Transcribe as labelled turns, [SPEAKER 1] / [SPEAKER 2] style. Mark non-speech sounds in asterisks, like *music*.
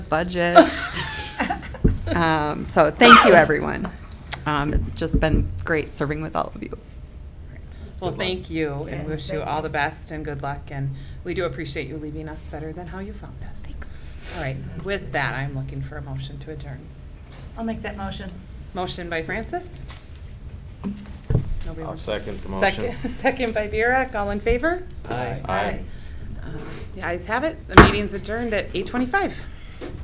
[SPEAKER 1] budget. *laughs*
[SPEAKER 2] *laughs*
[SPEAKER 1] Um, So thank you, everyone. Um, It's just been great serving with all of you.
[SPEAKER 3] Well,
[SPEAKER 4] Good luck.
[SPEAKER 3] thank you and
[SPEAKER 2] Yes,
[SPEAKER 3] wish you
[SPEAKER 2] thank
[SPEAKER 3] all
[SPEAKER 2] you.
[SPEAKER 3] the best and good luck. And we do appreciate you leaving us better than how you found us. Thanks. All right, with that, I'm looking for a motion to adjourn.
[SPEAKER 2] I'll make that motion.
[SPEAKER 3] Motion by Francis? Nobody
[SPEAKER 4] I'll
[SPEAKER 3] wants-
[SPEAKER 4] second the motion.
[SPEAKER 3] Second- *laughs* Second by Burek, all in favor?
[SPEAKER 4] Aye.
[SPEAKER 3] Uh, The ayes have it. The meeting's adjourned at eight twenty-five.